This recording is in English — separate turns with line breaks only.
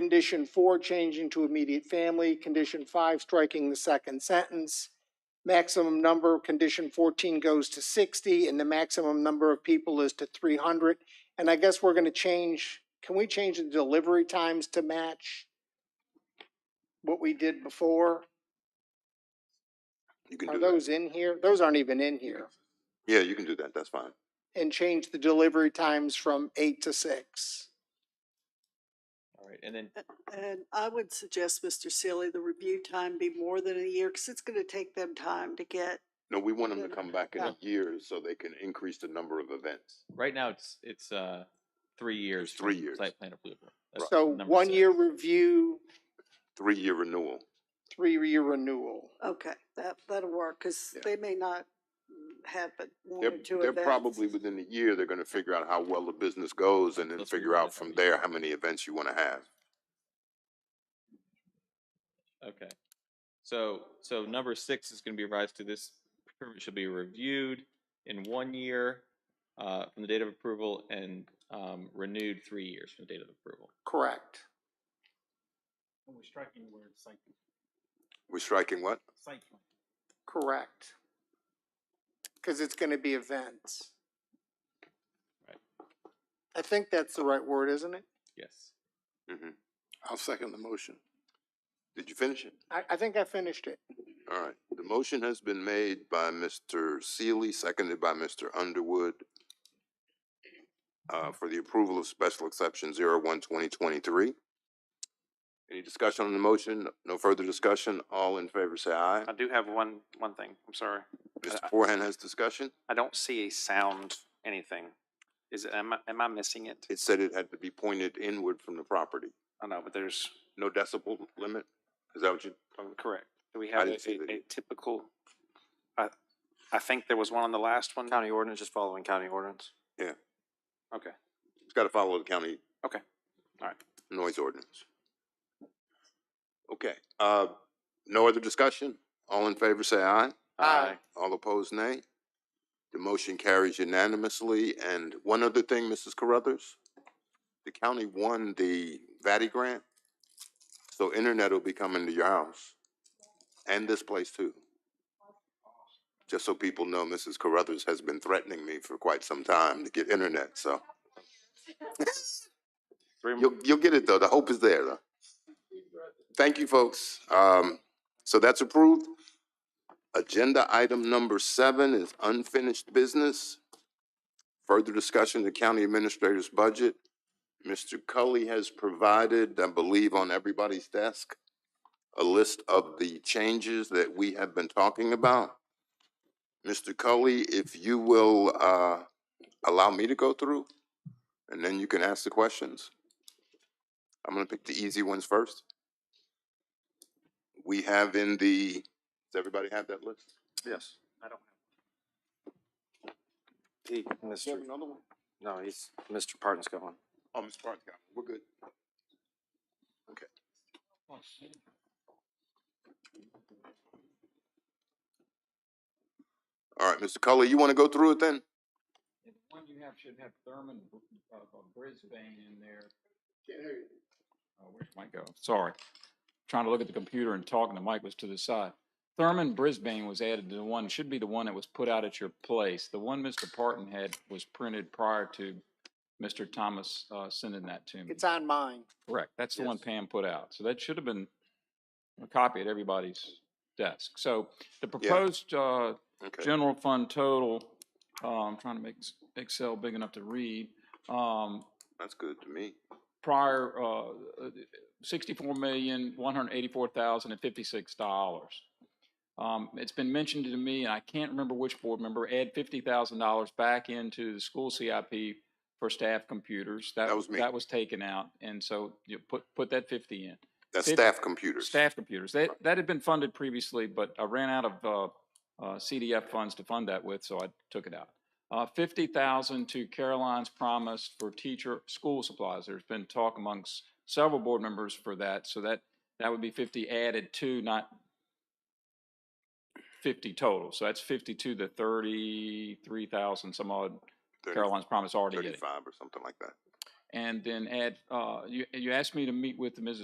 Condition four, changing to immediate family. Condition five, striking the second sentence. Maximum number, condition fourteen goes to sixty, and the maximum number of people is to three hundred. And I guess we're gonna change, can we change the delivery times to match what we did before?
You can
Are
do that.
those in here? Those aren't even in here.
Yeah, you can do that. That's fine.
And change the delivery times from eight to six.
All right, and then,
And I would suggest, Mr. Sealy, the review time be more than a year, because it's gonna take them time to get,
No, we want them to
Yeah.
come back in
Yeah.
a year so they can increase the number of events.
right now, it's, it's, uh, three years.
three
from
years.
Site plan approval. That's
So
number
one
six.
year review,
Three-year renewal.
three year renewal.
okay, that, that'll work, because
Yeah.
they may not mm, have but one
They're,
or two
they're
events.
probably within a year, they're gonna figure out how well the business goes and then
Let's move
figure
on
out
to
from
every year.
there how many events you wanna have.
Okay. So, so number six is gonna be revised to this permit should be reviewed in one year, uh, from the date of approval and, um, renewed three years from the date of approval.
Correct.
And we're striking the word site,
We're striking what?
site plan.
Correct. Cause it's gonna be events.
Right.
I think that's the right word, isn't it?
Yes.
Mhm. I'll second the motion. Did you finish it?
I, I think I finished it.
All right, the motion has been made by Mr. Seeley, seconded by Mr. Underwood uh, for the approval of special exception zero one twenty twenty-three. Any discussion on the motion? No further discussion? All in favor, say aye.
I do have one, one thing, I'm sorry.
Mr. Forehand has discussion.
I don't see a sound anything. Is, it- am I, am I missing it?
It said it had to be pointed inward from the property.
I know, but there's,
No decibel limit? Is that what you,
oh, correct. Do we have a,
didn't see that
a
either.
typical? I, I think there was one on the last one.
County ordinance, just following county ordinance.
Okay,
it's gotta follow the county.
Okay. All right.
Noise ordinance. Okay, uh, no other discussion? All in favor, say aye.
Uh,
Aye.
All opposed, nay. The motion carries unanimously. And one other thing, Mrs. Carruthers, the county won the VATI grant, so internet will be coming to your house and this place too. Just so people know, Mrs. Carruthers has been threatening me for quite some time to get internet, so
Three,
you'll, you'll get it though. The hope is there though. Thank you, folks. Um, so that's approved. Agenda item number seven is unfinished business. Further discussion of the county administrator's budget. Mr. Cully has provided, I believe, on everybody's desk, a list of the changes that we have been talking about. Mr. Cully, if you will, uh, allow me to go through, and then you can ask the questions. I'm gonna pick the easy ones first. We have in the, does everybody have that list?
Yes.
I don't
He, Mr.,
another one?
no, he's, Mr. Parton's going.
Oh, Mr. Barnes got it. We're good. All right, Mr. Cully, you wanna go through it then?
And the one you have should have Thurman, uh, uh, Brisbane in there. Oh, where's my go? Sorry. Trying to look at the computer and talking, the mic was to the side. Thurman Brisbane was added to the one, should be the one that was put out at your place. The one Mr. Parton had was printed prior to Mr. Thomas, uh, sending that to me.
It's on mine.
Correct. That's the one Pam put out. So that should have been a copy at everybody's desk. So the proposed, uh,
Okay,
general fund total, uh, I'm trying to make s- Excel big enough to read, um,
that's good to me.
prior, uh, sixty-four million, one hundred eighty-four thousand and fifty-six dollars. Um, it's been mentioned to me, and I can't remember which board member, add fifty thousand dollars back into the school CIP for staff computers.
That was me.
That was taken out, and so you put, put that fifty in.
That's
Fif-
staff computers.
Staff computers. That, that had been funded previously, but I ran out of, uh, uh, CDF funds to fund that with, so I took it out. Uh, fifty thousand to Caroline's Promise for teacher, school supplies. There's been talk amongst several board members for that, so that, that would be fifty added to, not fifty total. So that's fifty-two to thirty-three thousand, some odd
Thirty-
Caroline's Promise already getting.
Thirty-five or something like that.
And then add, uh, you, you asked me to meet with Mrs.